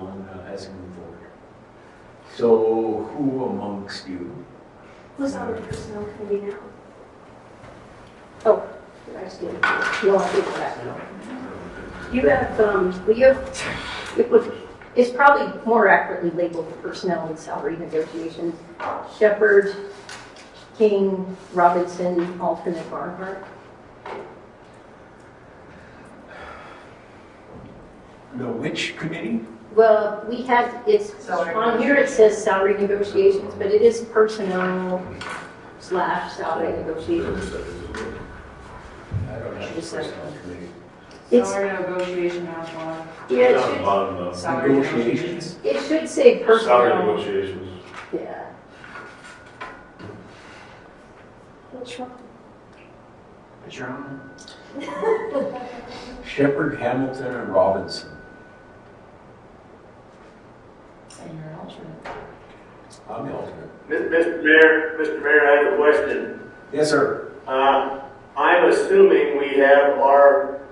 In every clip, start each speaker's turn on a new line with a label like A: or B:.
A: uh, So who amongst you?
B: Who's on the personnel committee now?
C: Oh, that's good. You all think that now. You have, um, well, you have, it was, it's probably more accurately labeled personnel and salary negotiations. Shepherd, King, Robinson, alternate Barnhart.
A: The which committee?
C: Well, we had, it's,
D: Salary
C: on here it says salary negotiations, but it is personnel slash salary negotiations.
A: I don't have a personnel committee.
C: It's,
D: Salary negotiation has one.
C: yeah, it
E: Down the
C: should-
E: bottom though.
D: Salary
A: Negotiations.
C: it should say
E: Salary
C: personnel.
E: negotiations.
C: Yeah.
B: Which one?
D: But you're on
A: Shepherd, Hamilton, and Robinson.
D: it. And you're an alternate.
A: I'm the alternate.
F: Mr. Mayor, Mr. Mayor, I have a question.
A: Yes, sir.
F: Uh, I'm assuming we have our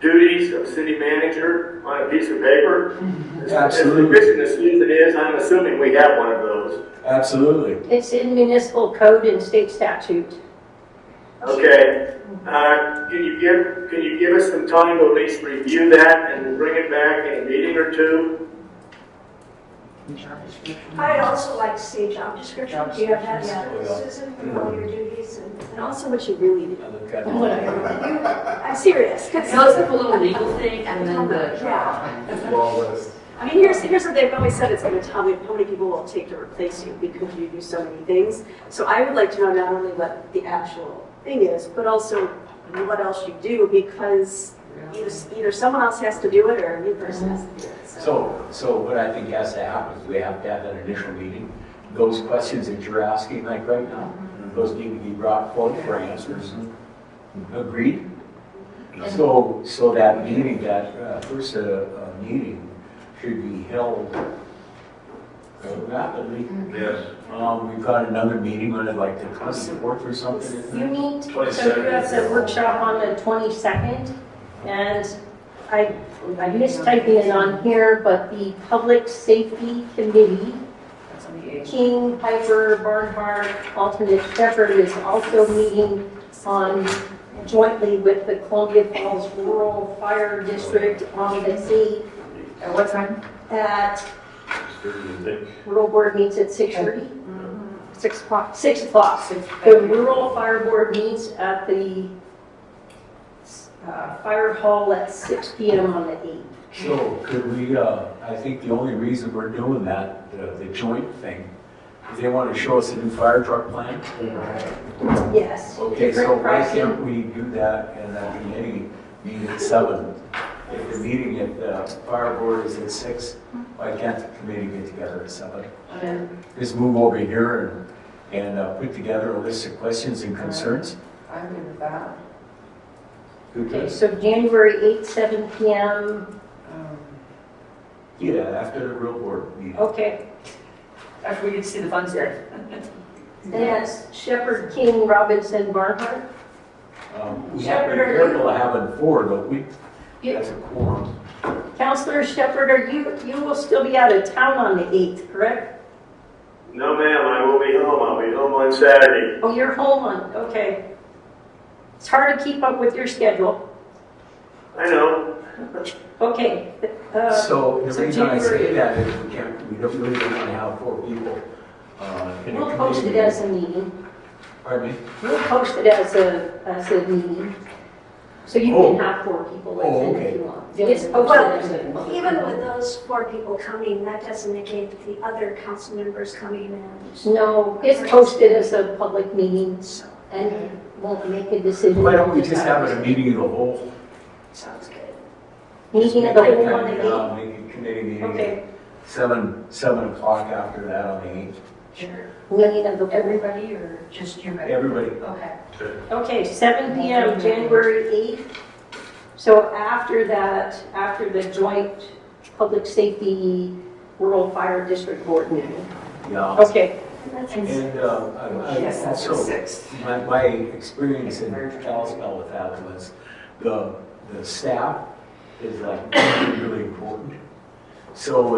F: duties of city manager on a piece of paper. As-
A: Absolutely.
F: As efficient as Susan is, I'm assuming we have one of those.
A: Absolutely.
C: It's in municipal code and state statute.
F: Okay. Uh, Can you give, can you give us some time to at least review that and bring it back in a meeting or two?
D: Job description.
B: I'd also like to see a job description, do you have that
A: Job
B: yet, Susan, for all your duties and, and also what you really do?
A: I look at-
C: What I-
B: I'm serious, 'cause-
G: So it's like a little legal thing and then the.
B: Yeah.
E: Long list.
B: I mean, here's, here's what they've always said, it's gonna tell me how many people will take to replace you because you do so many things. So I would like to know not only what the actual thing is, but also what else you do, because either, either someone else has to do it or a new person has to do it,
A: So, so what I think has to happen is we have to have an initial meeting. Those questions that you're asking like right now, those need to be brought forward for answers. Agreed? So, so that meeting, that uh, first uh, uh, meeting should be held uh, rapidly.
E: Yes.
A: Um, we've got another meeting, when I'd like to come support or something. isn't
C: You
A: it?
C: meet, so you
E: 22nd.
C: have the workshop on the 22nd, and I, I mistyping it on here, but the Public Safety Committee,
D: That's on the eighth.
C: King, Piper, Barnhart, alternate Shepherd is also meeting on jointly with the Columbia Falls Rural Fire District on the sea
D: At what time?
C: at,
E: Think.
C: rural board meets at 6:30.
B: Mm-hmm. Six o'clock.
C: 6 o'clock. The rural fire board meets at the uh, fire hall at 6 PM on the 8th.
A: So could we, uh, I think the only reason we're doing that, the the joint thing, is they want to show us a new fire truck plan.
C: Yes.
A: Okay, so
C: Different
A: why
C: pricing.
A: can't we do that in that committee meeting at seven? If the meeting at the fire board is at six, why can't the committee get together at seven?
D: I'm
A: Just move over here and, and uh, put together a list of questions and concerns?
D: good with that.
A: Who
C: Okay,
A: does?
C: so January 8th, 7 PM.
D: Um,
A: Yeah, after the real board meeting.
C: Okay.
D: After we get to see the funds here.
C: That's Shepherd, King, Robinson, Barnhart. Oh.
A: Um, We have to be careful of having four, but we,
C: Yeah.
A: that's a quorum.
C: Counselor Shepherd, are you, you will still be out of town on the 8th, correct?
F: No, ma'am, I will be home. I'll be home on Saturday.
C: Oh, you're home on, okay. It's hard to keep up with your schedule.
F: I know.
C: Okay. uh,
A: So the
C: so
A: reason I say
C: January-
A: that is we can't, we don't really want to have four people uh, in a committee.
C: We'll post it
A: meeting.
C: as a meeting.
A: Pardon me?
C: We'll post it as a, as a meeting, so you
A: Oh.
C: can have four people
A: Oh,
C: attend
A: okay.
C: if you want. It's
B: Well,
C: posted as a meeting.
B: Even with those four people coming, that doesn't negate the other council members coming in.
C: No, it's posted as a public meeting and won't make a decision.
A: Why don't we just have a meeting of the whole?
B: Sounds good.
C: Meeting of uh, the whole on
A: Make
C: the
A: a- Make a committee
C: eighth.
A: meeting at
C: Okay,
A: seven, seven o'clock after that on the eighth.
C: meeting of the whole.
D: Everybody or just you?
A: Everybody,
D: Okay.
C: Okay, seven PM, January 8th. So after that, after the joint public safety rural fire district board meeting.
A: yeah.
C: Okay,
A: And uh, I I
D: Yes, that's the
A: also
D: sixth.
A: My, my experience in Kalispell with that was the, the staff is like really important. So